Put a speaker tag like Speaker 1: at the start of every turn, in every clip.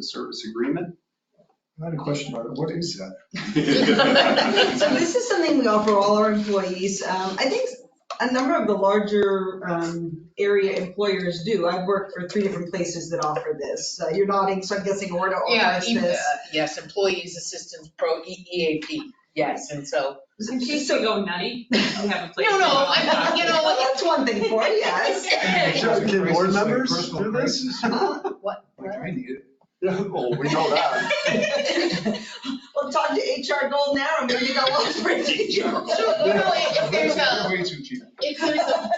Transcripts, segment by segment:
Speaker 1: service agreement.
Speaker 2: I had a question about it. What is that?
Speaker 3: So this is something we offer all our employees. Um, I think a number of the larger um, area employers do. I've worked for three different places that offer this. Uh, You're nodding, so I'm guessing Orta
Speaker 4: Yeah,
Speaker 3: offers
Speaker 4: e- uh,
Speaker 3: this.
Speaker 4: yes, employees assistance pro, E- EAP, yes, and so.
Speaker 5: In case we go nutty, we have a place.
Speaker 4: No,
Speaker 5: to
Speaker 4: no,
Speaker 5: go.
Speaker 4: I mean, you know,
Speaker 3: Well, That's one thing for it, yes.
Speaker 2: Just give board
Speaker 1: Crisis, like
Speaker 2: members
Speaker 1: personal
Speaker 2: do this?
Speaker 4: What?
Speaker 2: Like, I need it.
Speaker 1: Yeah, well, we know that.
Speaker 3: Well, talk to HR Gold now, I'm gonna go on for it.
Speaker 4: So, you know, if if there's a,
Speaker 2: Way too cheap.
Speaker 4: if there's a,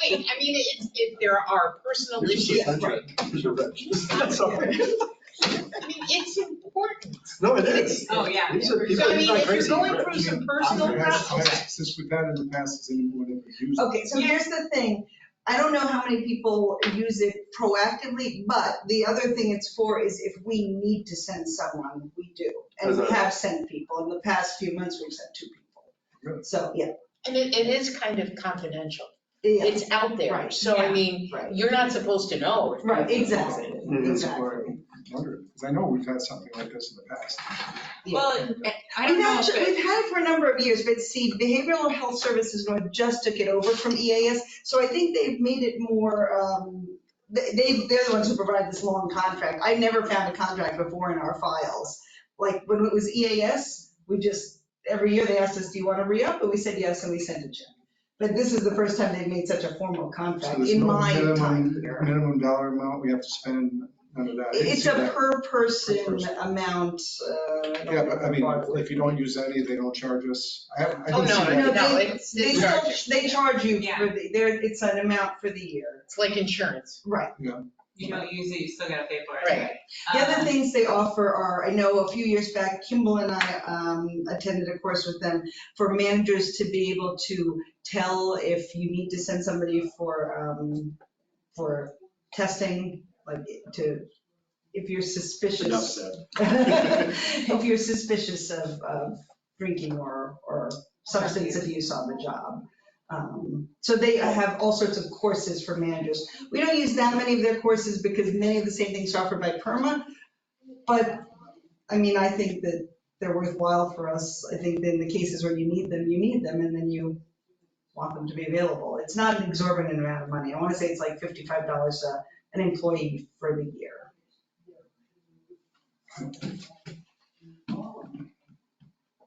Speaker 4: wait, I mean, if, if there are personal
Speaker 1: Here's the
Speaker 4: issues, I mean,
Speaker 1: contract. Here's your rep. That's all right.
Speaker 4: it's important.
Speaker 1: No, it is.
Speaker 5: Oh, yeah.
Speaker 1: These are people,
Speaker 4: So I
Speaker 1: it's
Speaker 4: mean,
Speaker 1: not
Speaker 4: if you're
Speaker 1: crazy.
Speaker 4: going through some personal
Speaker 2: I've asked- I've
Speaker 4: problems,
Speaker 2: asked This with that in the past, has anyone ever used? it?
Speaker 3: Okay, so here's the thing. I don't know how many people use it proactively, but the other thing it's for is if we need to send someone, we do. And we
Speaker 1: As a-
Speaker 3: have sent people. In the past few months, we've sent two people.
Speaker 2: Really?
Speaker 3: So, yeah.
Speaker 4: and it, it is kind of confidential,
Speaker 3: yeah,
Speaker 4: it's out there,
Speaker 3: Right,
Speaker 4: so I
Speaker 5: yeah,
Speaker 4: mean,
Speaker 3: right.
Speaker 4: you're not supposed to know. if
Speaker 3: Right,
Speaker 4: you're-
Speaker 3: exactly,
Speaker 1: Mhm.
Speaker 2: That's why
Speaker 3: exactly.
Speaker 2: I'm wondering, because I know we've had something like this in the past.
Speaker 5: Well, I don't
Speaker 3: We've
Speaker 5: know if
Speaker 3: actually,
Speaker 5: it-
Speaker 3: we've had it for a number of years, but see, Behavioral Health Services North just took it over from EAS. So I think they've made it more, um, they, they- they're the ones who provide this long contract. I never found a contract before in our files. Like when it was EAS, we just, every year they asked us, do you want to re-up? And we said yes, and we sent it to them. But this is the first time they've made such a formal
Speaker 2: So
Speaker 3: contract
Speaker 2: there's
Speaker 3: in
Speaker 2: no
Speaker 3: my
Speaker 2: minimum-
Speaker 3: time here.
Speaker 2: Minimum dollar amount we have to spend, none of that. I
Speaker 3: It-
Speaker 2: didn't
Speaker 3: It's
Speaker 2: see
Speaker 3: a
Speaker 2: that.
Speaker 3: per person
Speaker 2: person.
Speaker 3: amount. uh, don't
Speaker 2: Yeah, but I mean,
Speaker 3: know.
Speaker 2: if you don't use any, they don't charge us. I haven't, I
Speaker 4: Oh,
Speaker 2: didn't see
Speaker 4: no,
Speaker 2: that.
Speaker 4: no,
Speaker 3: No,
Speaker 4: no,
Speaker 3: they-
Speaker 4: it's,
Speaker 3: They
Speaker 4: it's
Speaker 3: still,
Speaker 4: charged.
Speaker 3: they charge you
Speaker 5: Yeah.
Speaker 3: for the, there, it's an amount for the year.
Speaker 4: It's like insurance,
Speaker 3: Right.
Speaker 5: you don't use it, you still gotta pay for it.
Speaker 4: right,
Speaker 3: The
Speaker 5: Um,
Speaker 3: other things they offer are, I know a few years back, Kimball and I um, attended a course with them for managers to be able to tell if you need to send somebody for, um, for testing, like to, if you're
Speaker 1: Enough
Speaker 3: suspicious.
Speaker 1: said.
Speaker 3: If you're suspicious of, of drinking or, or substance abuse on the job. Um, So they have all sorts of courses for managers. We don't use that many of their courses because many of the same things are offered by PERMA. But, I mean, I think that they're worthwhile for us. I think that in the cases where you need them, you need them, and then you want them to be available. It's not an exorbitant amount of money. I want to say it's like $55 a- an employee for the year.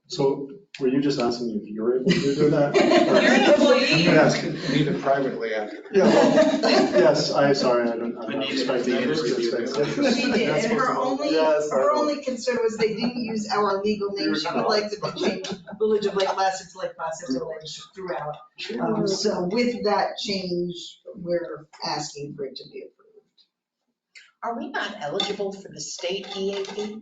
Speaker 1: So were you just asking if you're able to do that?
Speaker 5: You're an
Speaker 2: I'm
Speaker 5: employee.
Speaker 2: gonna ask Anita privately after.
Speaker 1: Yeah, well, yes, I'm sorry, I don't, I'm not
Speaker 6: Anita-
Speaker 1: expecting you to
Speaker 6: Anita's reviewed it.
Speaker 1: respect
Speaker 3: She did,
Speaker 1: That's
Speaker 3: and her
Speaker 1: possible.
Speaker 3: only,
Speaker 1: Yeah, sorry.
Speaker 3: her only concern was they didn't use our legal name. She would like to be changed, Village of Lake Placid to Lake Placid Village throughout. Um, So with that change, we're asking for it to be approved.
Speaker 4: are we not eligible for the state E EAP?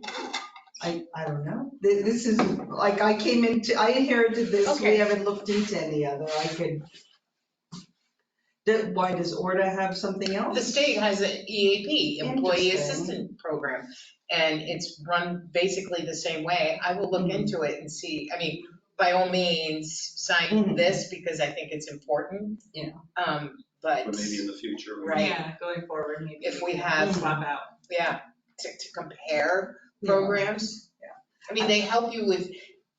Speaker 3: I, I don't know. Th- This is, like, I came into, I inherited this, we
Speaker 4: Okay.
Speaker 3: haven't looked into any other. I could. That- Why does Orta have something else?
Speaker 4: The state has an EAP, Employee
Speaker 3: Interesting.
Speaker 4: Assistant Program, and it's run basically the same way. I will
Speaker 3: Mm-hmm.
Speaker 4: look into it and see, I mean, by all means, sign
Speaker 3: Mhm.
Speaker 4: this because I think it's important.
Speaker 3: Yeah.
Speaker 4: Um, but,
Speaker 6: But maybe in the future. we-
Speaker 4: Right.
Speaker 5: Yeah, going forward, maybe.
Speaker 4: If we have-
Speaker 5: Swap out.
Speaker 4: yeah, to, to compare programs.
Speaker 3: Yeah.
Speaker 4: I mean, they help you with,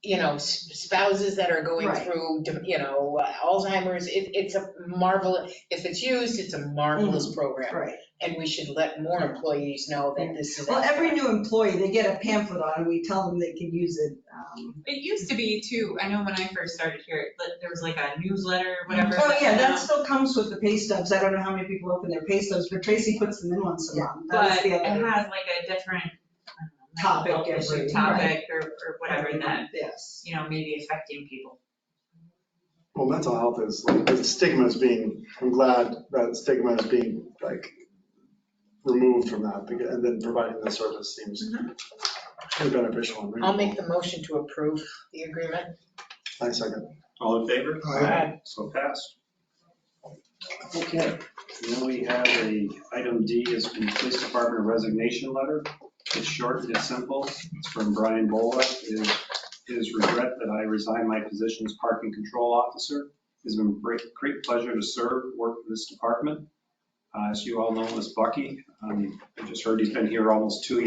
Speaker 4: you know, s- spouses that are going
Speaker 3: Right.
Speaker 4: through, you know, Alzheimer's. It, it's a marvelous, if it's used, it's a
Speaker 3: Mm-hmm.
Speaker 4: marvelous program.
Speaker 3: Right.
Speaker 4: And we should let more employees know that this is.
Speaker 3: Well, every new employee, they get a pamphlet on it. We tell them they can use it. um,
Speaker 5: It used to be too, I know when I first started here, that there was like a newsletter, whatever.
Speaker 3: Oh, yeah,
Speaker 5: went
Speaker 3: that
Speaker 5: out.
Speaker 3: still comes with the pay stubs. I don't know how many people open their pay stubs, but Tracy puts them in once a month. That
Speaker 5: But
Speaker 3: is the
Speaker 5: it
Speaker 3: other
Speaker 5: has like a different. I don't know, mental
Speaker 3: Topic
Speaker 5: health issue,
Speaker 3: every-
Speaker 5: Topic or, or whatever that,
Speaker 3: Yes.
Speaker 5: you know, may be affecting people.
Speaker 1: Well, mental health is, like, the stigma is being, I'm glad that stigma is being, like, removed from that, because- and then providing the service seems pretty beneficial and
Speaker 4: Mm-hmm. I'll
Speaker 1: reasonable.
Speaker 4: make the motion to approve the agreement.
Speaker 1: I second.
Speaker 6: All in favor?
Speaker 2: Aye.
Speaker 6: So passed. Okay, now we have a, item D is the police department resignation letter. It's short, it's simple, it's from Brian Bola. It is his regret that I resign my position as parking control officer. It's been a great, great pleasure to serve, work for this department. Uh, As you all know, Miss Bucky, um, I just heard he's been here almost two